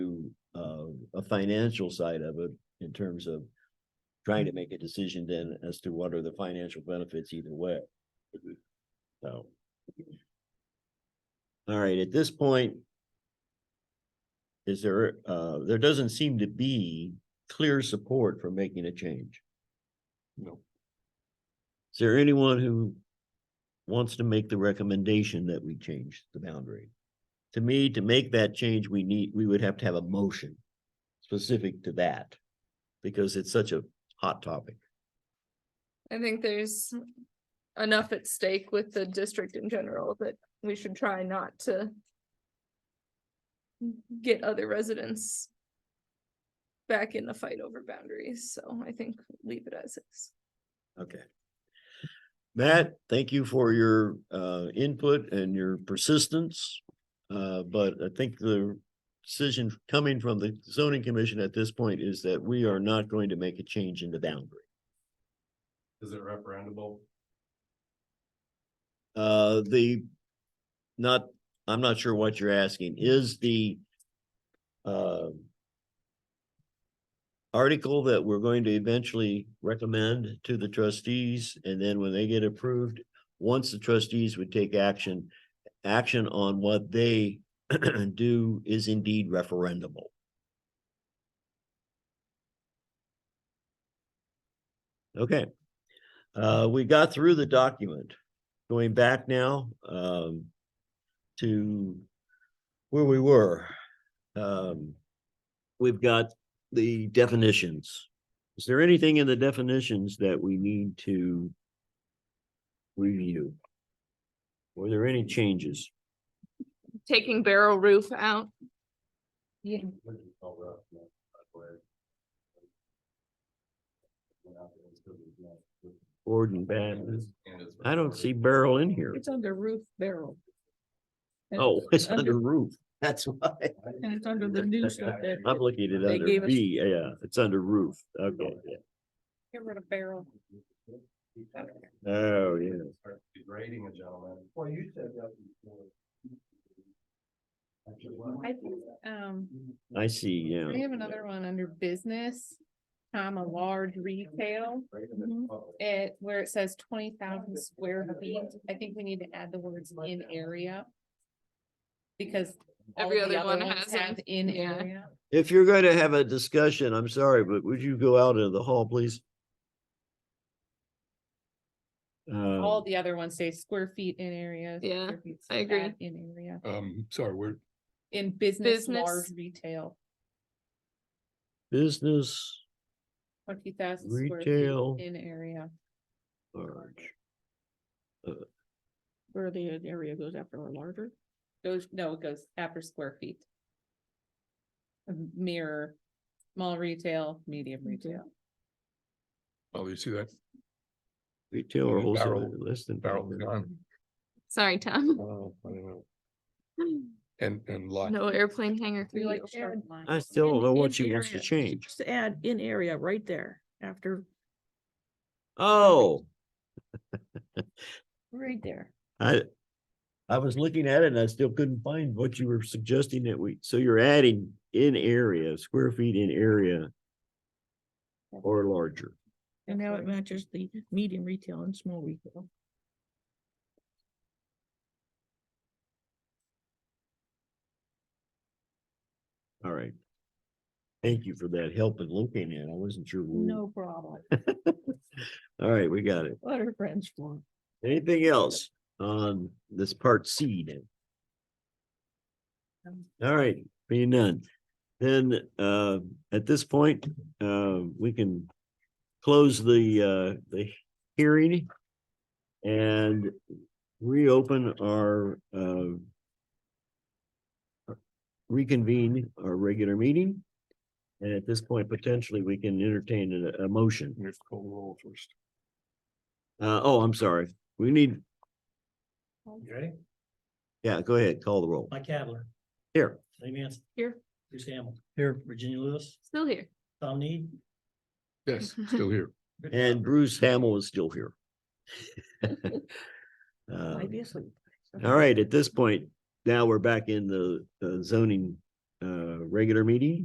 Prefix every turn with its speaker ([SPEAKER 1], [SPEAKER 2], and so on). [SPEAKER 1] uh, a financial side of it in terms of trying to make a decision then as to what are the financial benefits either way. So. All right, at this point. Is there, uh, there doesn't seem to be clear support for making a change. No. Is there anyone who wants to make the recommendation that we change the boundary? To me, to make that change, we need, we would have to have a motion specific to that. Because it's such a hot topic.
[SPEAKER 2] I think there's enough at stake with the district in general that we should try not to get other residents back in the fight over boundaries, so I think leave it as is.
[SPEAKER 1] Okay. Matt, thank you for your uh input and your persistence. Uh, but I think the decision coming from the zoning commission at this point is that we are not going to make a change in the boundary.
[SPEAKER 3] Is it referendable?
[SPEAKER 1] Uh, the, not, I'm not sure what you're asking, is the uh article that we're going to eventually recommend to the trustees, and then when they get approved, once the trustees would take action, action on what they do is indeed referendable. Okay. Uh, we got through the document going back now, um, to where we were. Um, we've got the definitions. Is there anything in the definitions that we need to review? Were there any changes?
[SPEAKER 2] Taking barrel roof out,
[SPEAKER 3] What do you call rough, no, by the way? We're not gonna still be doing it.
[SPEAKER 1] Board and bad.
[SPEAKER 3] And it's
[SPEAKER 1] I don't see barrel in here.
[SPEAKER 4] It's under roof barrel. And
[SPEAKER 1] Oh, it's
[SPEAKER 4] under-
[SPEAKER 1] under roof. That's why.
[SPEAKER 4] And it's under the new stuff that.
[SPEAKER 1] I'm looking at it
[SPEAKER 4] They
[SPEAKER 1] under
[SPEAKER 4] gave us- Oh,
[SPEAKER 1] B. Yeah, it's under roof. Okay.
[SPEAKER 4] Get rid of barrel.
[SPEAKER 1] Oh, yeah.
[SPEAKER 3] Start Degrading a gentleman. Well, you said that before.
[SPEAKER 4] I think, um,
[SPEAKER 1] I see, yeah.
[SPEAKER 4] we have another one under business, comma, large retail. Mm-hmm. It, where it says twenty thousand square feet, I think we need to add the words in area. Because. all
[SPEAKER 2] Every
[SPEAKER 4] of the
[SPEAKER 2] other one
[SPEAKER 4] ones
[SPEAKER 2] has it.
[SPEAKER 4] have In
[SPEAKER 2] Yeah.
[SPEAKER 4] area.
[SPEAKER 1] If you're going to have a discussion, I'm sorry, but would you go out into the hall, please? Uh,
[SPEAKER 4] All the other ones say square feet in area.
[SPEAKER 2] Yeah,
[SPEAKER 4] square feet,
[SPEAKER 2] I
[SPEAKER 4] so
[SPEAKER 2] agree.
[SPEAKER 4] add In area,
[SPEAKER 5] Um, sorry, we're,
[SPEAKER 4] in business,
[SPEAKER 2] Business.
[SPEAKER 4] large retail,
[SPEAKER 1] business
[SPEAKER 4] twenty thousand square
[SPEAKER 1] Retail.
[SPEAKER 4] feet in area.
[SPEAKER 1] large.
[SPEAKER 4] Where the area goes after or larger? Goes, no, it goes after square feet. Um, Mirror, small retail, medium retail.
[SPEAKER 5] oh, you see that
[SPEAKER 1] Retail or
[SPEAKER 5] Yeah,
[SPEAKER 1] wholesale,
[SPEAKER 5] barrel-
[SPEAKER 1] less than.
[SPEAKER 5] barrel
[SPEAKER 3] Mm-hmm.
[SPEAKER 5] gun?
[SPEAKER 2] sorry, Tom,
[SPEAKER 5] Oh, I don't know. And, and lot.
[SPEAKER 2] no airplane hangar. for
[SPEAKER 4] We like
[SPEAKER 2] you.
[SPEAKER 4] sharp lines.
[SPEAKER 1] I still don't
[SPEAKER 6] in-
[SPEAKER 1] know
[SPEAKER 6] in
[SPEAKER 1] what she wants to
[SPEAKER 6] area.
[SPEAKER 1] change.
[SPEAKER 6] Just add in area right there after,
[SPEAKER 1] Oh,
[SPEAKER 6] right there.
[SPEAKER 1] I, I was looking at it and I still couldn't find what you were suggesting that we, so you're adding in area, square feet in area or larger.
[SPEAKER 6] And now it matches the medium retail and small retail.
[SPEAKER 1] All right. Thank you for that help in looking at. it. I wasn't sure. where-
[SPEAKER 6] No problem.
[SPEAKER 1] All right, we got it.
[SPEAKER 6] What are friends for?
[SPEAKER 1] Anything else on this part C then? All right, being none, then uh at this point, uh we can close the uh the hearing. And reopen our uh. Reconvene our regular meeting. And at this point, potentially, we can entertain a a motion.
[SPEAKER 5] We have to call the roll first.
[SPEAKER 1] Uh, oh, I'm sorry. We need,
[SPEAKER 7] You ready?
[SPEAKER 1] yeah, go ahead, call the roll.
[SPEAKER 7] Mike Kavler,
[SPEAKER 1] Here,
[SPEAKER 7] Lee Manson.
[SPEAKER 2] Here.
[SPEAKER 7] Bruce Hamel. Here. Virginia Lewis,
[SPEAKER 2] Still here.
[SPEAKER 7] Tom Need.
[SPEAKER 5] Yes, still here.
[SPEAKER 7] Rick
[SPEAKER 1] and Bruce Hamel is still here. Uh,
[SPEAKER 6] Might be asleep.
[SPEAKER 1] all right, at this point, now we're back in the uh, zoning, uh, regular meeting.